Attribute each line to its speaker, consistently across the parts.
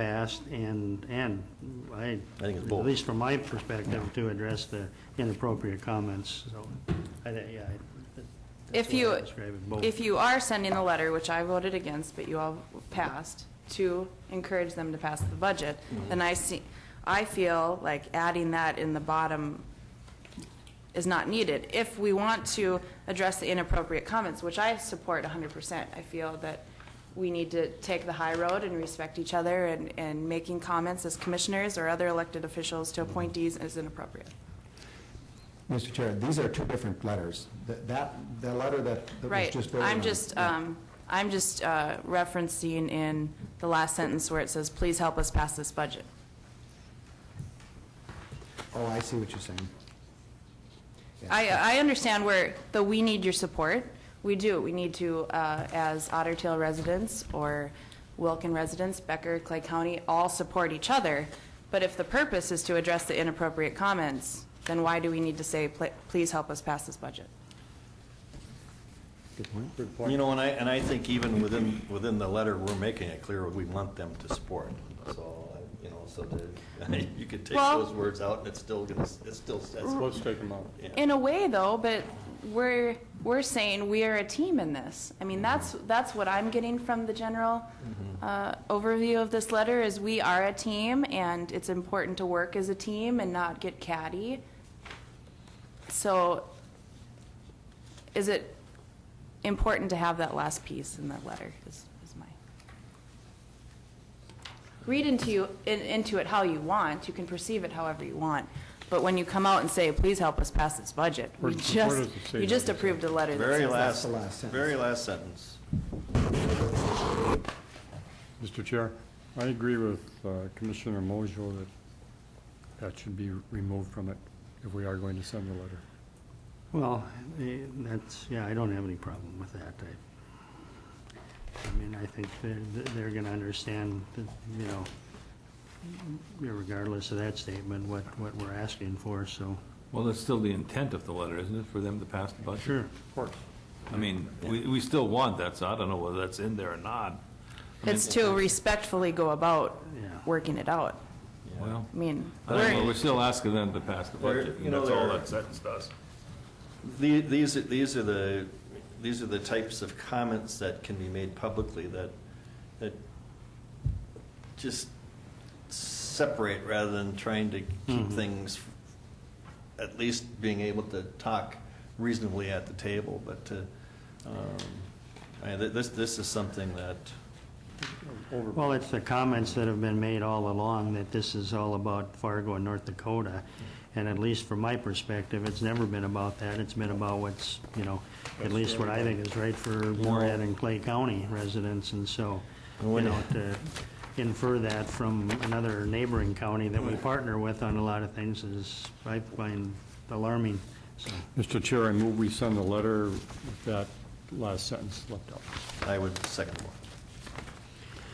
Speaker 1: passed and, and I,
Speaker 2: I think it's
Speaker 1: at
Speaker 2: both.
Speaker 1: least from my perspective, to address the inappropriate comments, so, I, thi- yeah. I- that's
Speaker 3: If
Speaker 1: the way
Speaker 3: you,
Speaker 1: I describe it, both.
Speaker 3: if you are sending the letter, which I voted against, but you all passed, to encourage them to pass the budget,
Speaker 1: Mm-hmm.
Speaker 3: then I see, I feel like adding that in the bottom is not needed. If we want to address the inappropriate comments, which I support hundred percent, I feel that we need to take the high road and respect each other and, and making comments as commissioners or other elected officials to appointees is inappropriate.
Speaker 4: Mr. Chair, these are two different letters. That, that the letter that that was
Speaker 3: Right,
Speaker 4: just voted
Speaker 3: I'm
Speaker 4: on-
Speaker 3: just, um, I'm just uh, referencing in the last sentence where it says, please help us pass this budget.
Speaker 4: Oh, I see what you're saying. Yeah.
Speaker 3: I, I understand where the we need your support, we do, we need to, uh, as Otter Tail residents or Wilkin residents, Becker, Clay County, all support each other, but if the purpose is to address the inappropriate comments, then why do we need to say, "Pl- please help us pass this budget?
Speaker 4: Good point.
Speaker 2: You know, and I, and I think even within, within the letter, we're making it clear we want them to support. So, you know, so that, you could take
Speaker 3: Well-
Speaker 2: those words out and it's still gonna, it's still says.
Speaker 5: Let's take them out.
Speaker 3: In a way, though, but we're, we're saying we are a team in this. I mean, that's, that's what I'm getting from the general uh, overview of this letter, is we are a team, and it's important to work as a team and not get catty. So is it important to have that last piece in that letter, is, is my... Read into, you in- into it how you want, you can perceive it however you want, but when you come out and say, please help us pass this budget, we
Speaker 5: Where- where does
Speaker 3: just,
Speaker 5: it say
Speaker 3: you just
Speaker 5: that?
Speaker 3: approved a letter that
Speaker 2: Very
Speaker 3: says that.
Speaker 2: last,
Speaker 4: the last sentence.
Speaker 2: very last sentence.
Speaker 5: Mr. Chair, I agree with uh, Commissioner Mojo that that should be removed from it if we are going to send the letter.
Speaker 1: Well, eh, that's, yeah, I don't have any problem with that. I, I mean, I think they're, they're gonna understand, that, you know, regardless of that statement, what, what we're asking for, so,
Speaker 6: Well, that's still the intent of the letter, isn't it, for them to pass the budget?
Speaker 1: sure.
Speaker 6: I mean, we, we still want that, so I don't know whether that's in there or not. I mean,
Speaker 3: It's to respectfully go about
Speaker 1: Yeah.
Speaker 3: working it out.
Speaker 6: Well,
Speaker 3: I mean,
Speaker 6: I don't know,
Speaker 3: we're-
Speaker 6: we're still asking them to pass the
Speaker 2: They're-
Speaker 6: budget,
Speaker 2: you
Speaker 6: and
Speaker 2: know,
Speaker 6: that's all
Speaker 2: they're-
Speaker 6: that sentence does.
Speaker 2: The- These, are- these are the, these are the types of comments that can be made publicly that, that just separate rather than trying to keep
Speaker 1: Mhm.
Speaker 2: things, at least being able to talk reasonably at the table, but to, um, I mean, th- this, this is something that,
Speaker 5: Over.
Speaker 1: Well, it's the comments that have been made all along that this is all about Fargo and North Dakota. And at least from my perspective, it's never been about that. It's been about what's, you know, at least what I think is right for Morehead and Clay County residents. And so, you know, to infer that from another neighboring county that we partner with on a lot of things is, I find alarming. So,
Speaker 5: Mr. Chair, I move we send the letter with that last sentence left out.
Speaker 2: I would second more.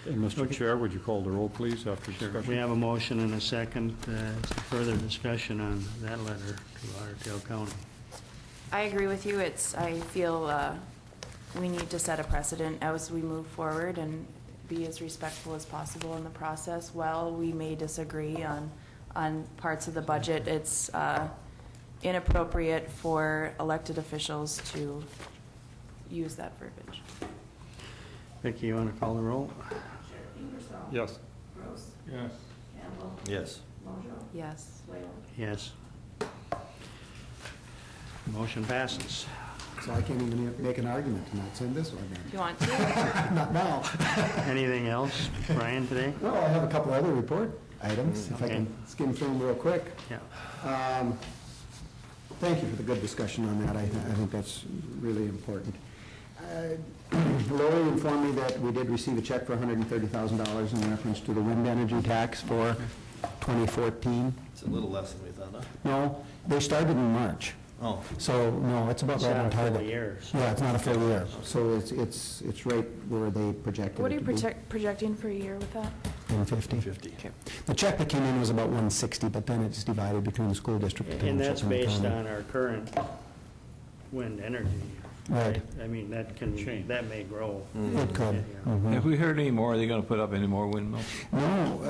Speaker 5: And Mr. Chair, would you call the roll, please, after
Speaker 1: We
Speaker 5: discussion?
Speaker 1: have a motion and a second, uh, further discussion on that letter to Otter Tail County.
Speaker 3: I agree with you. It's, I feel uh, we need to set a precedent as we move forward and be as respectful as possible in the process. While we may disagree on, on parts of the budget, it's uh, inappropriate for elected officials to use that verbiage.
Speaker 1: Vicki, you want to call the roll?
Speaker 5: Yes.
Speaker 2: Yes.
Speaker 3: Yes.
Speaker 1: Yes. Motion passes.
Speaker 4: So I can't even make an argument to not send this one
Speaker 3: If
Speaker 4: then.
Speaker 3: you want to,
Speaker 4: Not now.
Speaker 1: Anything else, Brian, today?
Speaker 4: Well, I have a couple other report items, if I
Speaker 1: Okay.
Speaker 4: can skim through them real quick.
Speaker 1: Yeah.
Speaker 4: Um, Thank you for the good discussion on that. I, I think that's really important. Uh, Lori informed me that we did receive a check for $130,000 in reference to the wind energy tax for 2014.
Speaker 2: It's a little less than we thought, huh?
Speaker 4: No, they started in March,
Speaker 2: Oh,
Speaker 4: so, no, it's about
Speaker 1: It's
Speaker 4: right
Speaker 1: not
Speaker 4: on
Speaker 1: a full
Speaker 4: target.
Speaker 1: year. so-
Speaker 4: Yeah, it's not a full year, so it's, it's, it's right where they projected
Speaker 3: what are
Speaker 4: it
Speaker 3: you
Speaker 4: to be.
Speaker 3: project- projecting for a year with that?
Speaker 4: 150.
Speaker 2: 50.
Speaker 4: The check that came in was about 160, but then it's divided between the school district, the
Speaker 1: And that's
Speaker 4: township, and the
Speaker 1: based
Speaker 4: county.
Speaker 1: on our current wind energy
Speaker 4: Right.
Speaker 1: I mean, that can,
Speaker 5: Change.
Speaker 1: that may grow.
Speaker 4: It could.
Speaker 1: Yeah.
Speaker 4: Mhm.
Speaker 6: Have we heard any more? Are they going to put up any more windmills?
Speaker 4: No,